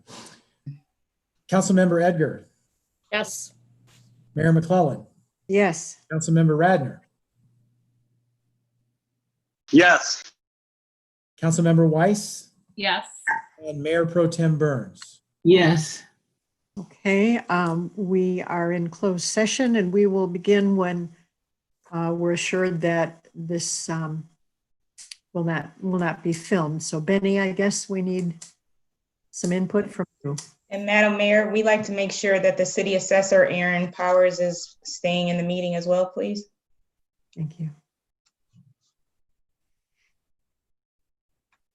Councilmember Edgar, Yes. Mayor McClellan, Yes. Councilmember Radner, Yes. Councilmember Weiss, Yes. and Mayor Pro Tem Burns. Yes. Okay, um, we are in closed session and we will begin when uh, we're assured that this um, will not, will not be filmed. So Benny, I guess we need some input from you. And Madam Mayor, we like to make sure that the city assessor, Aaron Powers, is staying in the meeting as well, please. Thank you.